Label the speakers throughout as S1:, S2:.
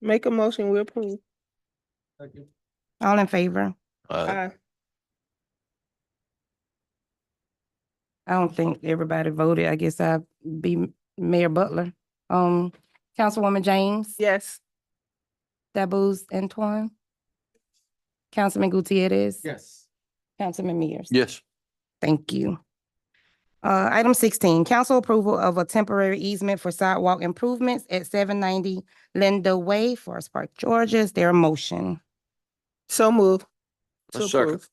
S1: Make a motion, we approve.
S2: All in favor?
S3: Uh,
S1: Aye.
S2: I don't think everybody voted. I guess I'd be Mayor Butler. Um, Councilwoman James.
S1: Yes.
S2: Dabuz Antoine. Councilman Gutierrez.
S4: Yes.
S2: Councilman Mears.
S3: yes,
S2: Thank you. Uh, item sixteen, council approval of a temporary easement for sidewalk improvements at seven ninety Linda Way, Forest Park, Georgia. Is there a motion?
S1: So move.
S3: A
S1: To
S3: second.
S1: approve.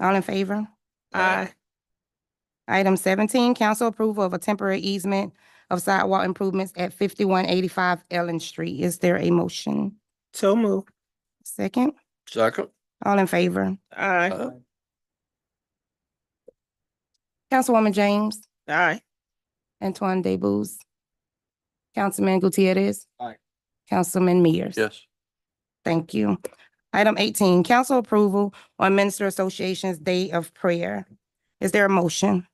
S2: All in favor?
S1: Aye.
S2: Item seventeen, council approval of a temporary easement of sidewalk improvements at fifty-one eighty-five Ellen Street. Is there a motion?
S1: So move.
S2: Second,
S3: second,
S2: all in favor?
S1: Aye.
S3: uh,
S2: Councilwoman James,
S1: Aye.
S2: Antoine Debus, Councilman Gutierrez.
S4: Aye.
S2: Councilman Mears.
S3: yes,
S2: Thank you. Item eighteen, council approval on Minister Association's Day of Prayer. Is there a motion?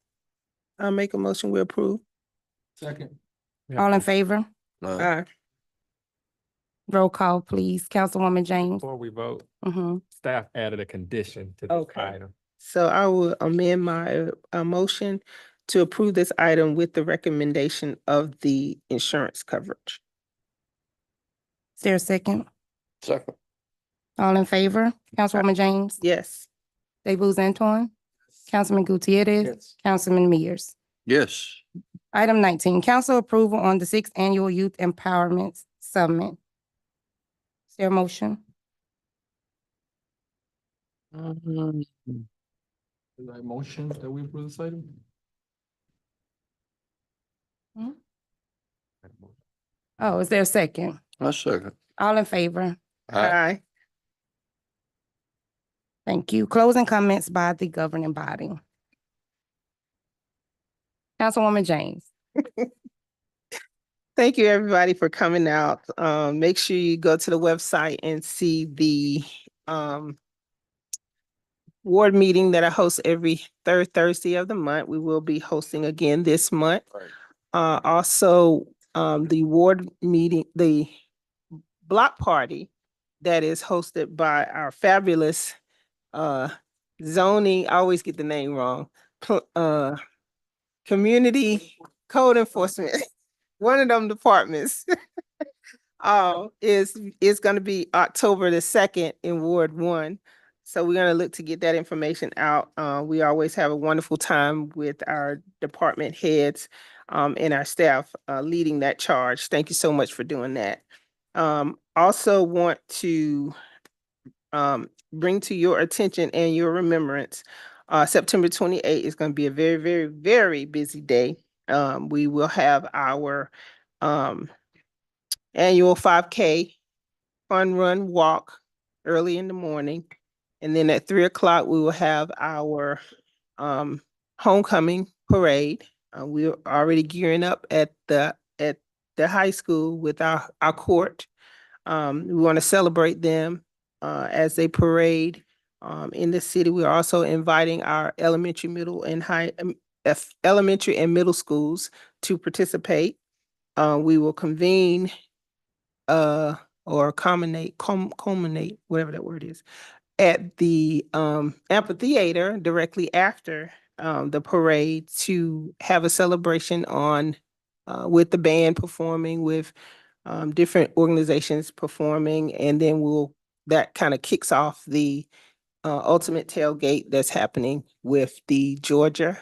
S1: I make a motion, we approve.
S4: Second.
S2: All in favor?
S3: uh,
S1: Aye.
S2: Roll call, please. Councilwoman James.
S5: Before we vote,
S2: hmm
S5: staff added a condition to this
S1: Okay.
S5: item.
S1: So I will amend my, uh, motion to approve this item with the recommendation of the insurance coverage.
S2: Is there a second?
S3: second,
S2: All in favor? Councilwoman James.
S1: Yes.
S2: Debus Antoine. Councilman Gutierrez.
S4: Yes.
S2: Councilman Mears.
S3: yes,
S2: Item nineteen, council approval on the sixth annual Youth Empowerment Summit. Is there a motion?
S4: Is there a motion that we approve this item?
S2: Oh, is there a second?
S3: a second.
S2: All in favor?
S3: Aye.
S2: Thank you. Closing comments by the governing body. Councilwoman James.
S1: Thank you, everybody, for coming out. Um, make sure you go to the website and see the, um, ward meeting that I host every third Thursday of the month. We will be hosting again this month.
S3: Right.
S1: Uh, also, um, the ward meeting, the block party that is hosted by our fabulous, uh, zoning, I always get the name wrong, pl- uh, community code enforcement one of them departments. Uh, is, is gonna be October the second in Ward One. So we're gonna look to get that information out. Uh, we always have a wonderful time with our department heads um, and our staff, uh, leading that charge. Thank you so much for doing that. Um, also want to um, bring to your attention and your remembrance, uh, September twenty-eighth is gonna be a very, very, very busy day. Um, we will have our um annual five K fun run walk early in the morning. And then at three o'clock, we will have our um homecoming parade. Uh, we're already gearing up at the at the high school with our our court. Um, we want to celebrate them uh as they parade um in the city. We're also inviting our elementary, middle and high um, F- elementary and middle schools to participate. Uh, we will convene uh, or culminate, cum- culminate, whatever that word is, at the um, amphitheater directly after um, the parade to have a celebration on uh, with the band performing, with um, different organizations performing, and then we'll that kind of kicks off the uh, ultimate tailgate that's happening with the Georgia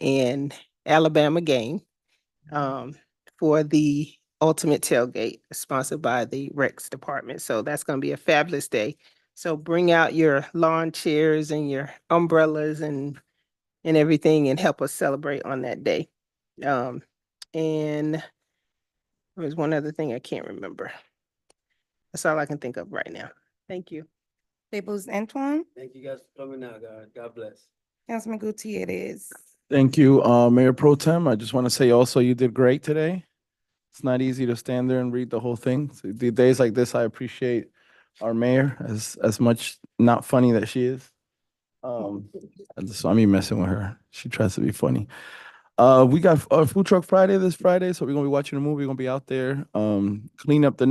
S1: in Alabama game um, for the ultimate tailgate sponsored by the Rex Department. So that's going to be a fabulous day. So bring out your lawn chairs and your umbrellas and and everything and help us celebrate on that day. Um, and there was one other thing I can't remember. That's all I can think of right now. Thank you.
S2: Debus Antoine,
S6: Thank you guys for coming out, God. God bless.
S2: Councilman Gutierrez.
S7: Thank you, uh, Mayor Pro Tem. I just want to say also, you did great today. It's not easy to stand there and read the whole thing. So The days like this, I appreciate our mayor as, as much not funny that she is. Um, I just, I mean, messing with her. She tries to be funny. Uh, we got our Food Truck Friday this Friday, so we're gonna be watching a movie, we're gonna be out there, um, clean up the